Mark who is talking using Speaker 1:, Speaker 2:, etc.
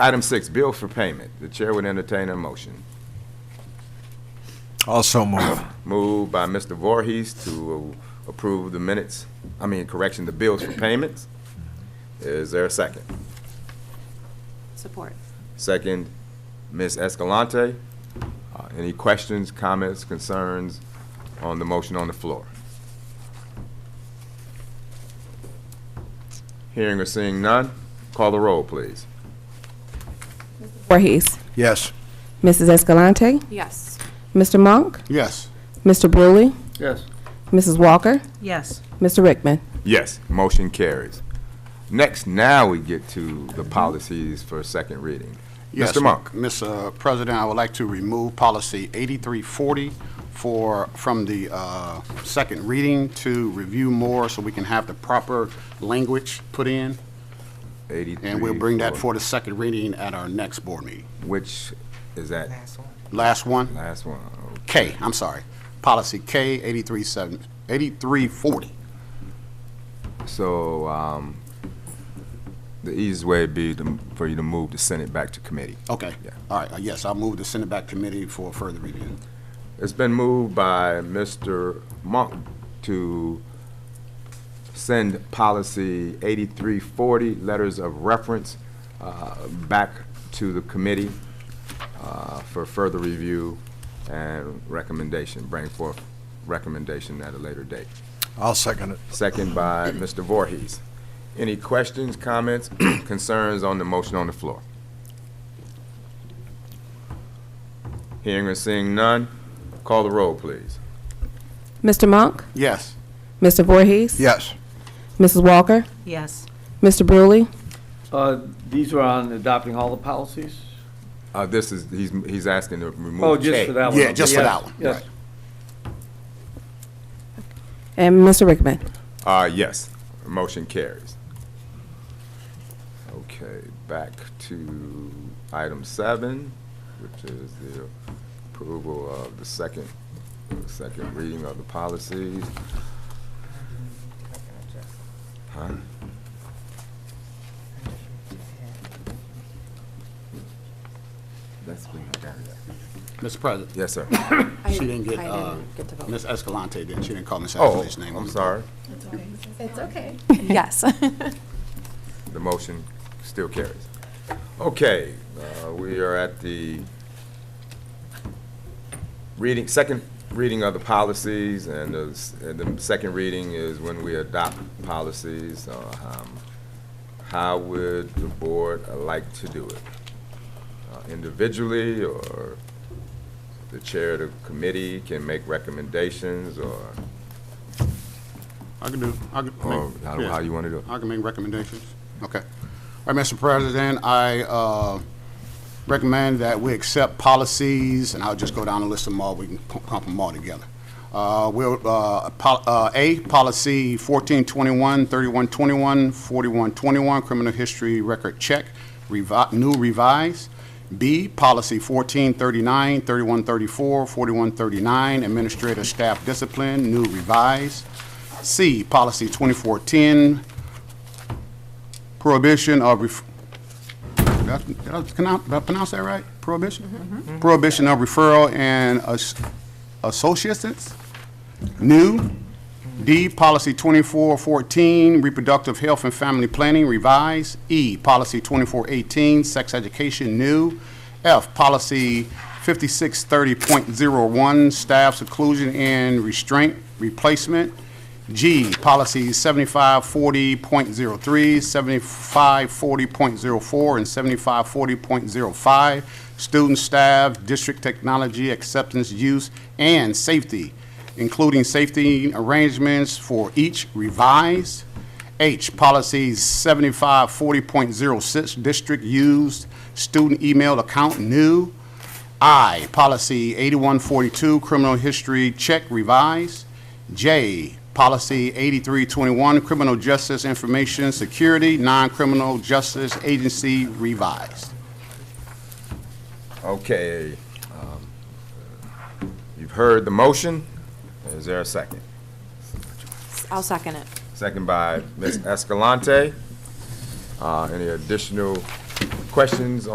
Speaker 1: Item six, bill for payment. The chair would entertain a motion.
Speaker 2: Also move.
Speaker 1: Moved by Mr. Voorhees to approve the minutes, I mean, correction, the bills for payments. Is there a second?
Speaker 3: Support.
Speaker 1: Second, Ms. Escalante. Uh, Any questions, comments, concerns on the motion on the floor? Hearing or seeing none, call the roll, please.
Speaker 4: Voorhees.
Speaker 2: Yes.
Speaker 4: Mrs. Escalante.
Speaker 3: Yes.
Speaker 4: Mr. Monk.
Speaker 2: Yes.
Speaker 4: Mr. Brewley.
Speaker 2: Yes.
Speaker 4: Mrs. Walker.
Speaker 5: Yes.
Speaker 4: Mr. Rickman.
Speaker 1: Yes, motion carries. Next, now we get to the policies for second reading.
Speaker 6: Mm-hmm. Yes,
Speaker 1: Mr. Monk.
Speaker 6: Ms. uh, President, I would like to remove policy 8340 for, from the uh, second reading to review more so we can have the proper language put in,
Speaker 1: 83.
Speaker 6: and we'll bring that for the second reading at our next board meeting.
Speaker 1: Which is that
Speaker 6: Last one,
Speaker 1: last one?
Speaker 6: K, I'm sorry, policy K 837 8340.
Speaker 1: So, um, the easiest way would be to- for you to move the Senate back to committee.
Speaker 6: Okay,
Speaker 1: Yeah.
Speaker 6: all right, uh, yes, I'll move to send it back committee for further review.
Speaker 1: It's been moved by Mr. Monk to send policy 8340, letters of reference, uh, back to the committee uh, for further review and recommendation, bring forth recommendation at a later date.
Speaker 2: I'll second it.
Speaker 1: Second by Mr. Voorhees. Any questions, comments, concerns on the motion on the floor? Hearing or seeing none, call the roll, please.
Speaker 4: Mr. Monk.
Speaker 6: Yes,
Speaker 4: Mr. Voorhees.
Speaker 2: Yes.
Speaker 4: Mrs. Walker.
Speaker 5: Yes.
Speaker 4: Mr. Brewley.
Speaker 7: Uh, These are on adopting all the policies?
Speaker 1: Uh, this is, he's, he's asking to remove.
Speaker 7: Oh, just
Speaker 1: K.
Speaker 7: for that one?
Speaker 6: Yeah, just for
Speaker 7: Yes,
Speaker 6: that one,
Speaker 7: Yes.
Speaker 4: And Mr. Rickman.
Speaker 1: Uh, yes, motion carries. Okay, back to item seven, which is the approval of the second, second reading of the policies. Huh? That's been-
Speaker 6: Mr. President,
Speaker 1: Yes, sir.
Speaker 3: I-
Speaker 6: she didn't get,
Speaker 3: I
Speaker 6: uh,
Speaker 3: didn't get to vote.
Speaker 6: Ms. Escalante didn't, she didn't call Ms.
Speaker 1: Oh,
Speaker 6: Escalante's name. on
Speaker 1: I'm
Speaker 6: the-
Speaker 1: sorry.
Speaker 3: Yes.
Speaker 1: The motion still carries. Okay, uh, we are at the reading, second reading of the policies, and the, s- and the second reading is when we adopt policies. Uh, um, How would the board like to do it? Uh, Individually, or the chair of the committee can make recommendations, or,
Speaker 6: I can do, I can.
Speaker 1: or
Speaker 6: make-
Speaker 1: how
Speaker 6: yeah.
Speaker 1: how you want to do it?
Speaker 6: I can make recommendations. Okay. All right, Mr. President, I uh, recommend that we accept policies, and I'll just go down and list them all, we can pu- pump them all together. Uh, We'll, uh, pol- uh, A, Policy 1421, 3121, 4121, Criminal History Record Check, revi- new revised. B, Policy 1439, 3134, 4139, Administrative Staff Discipline, new revised. C, Policy 2410, prohibition of, ref- did I- did I pronounce- did I pronounce that right? Prohibition? Prohibition of referral and as- associates. New. D, Policy 2414, reproductive health and family planning, revised. E, Policy 2418, sex education, new. F, Policy 5630.01, staff seclusion and restraint, replacement. G, policy 7540.03, 7540.04, and 7540.05, student, staff, district technology, acceptance, use, and safety, including safety arrangements for each revised. H, policy 7540.06, district used, student email account new. I, policy 8142, criminal history check revised. J, policy 8321, criminal justice information security, non-criminal justice agency revised.
Speaker 1: Okay. um, You've heard the motion. Is there a second?
Speaker 3: I'll second it.
Speaker 1: Second by Ms. Escalante. Uh, Any additional questions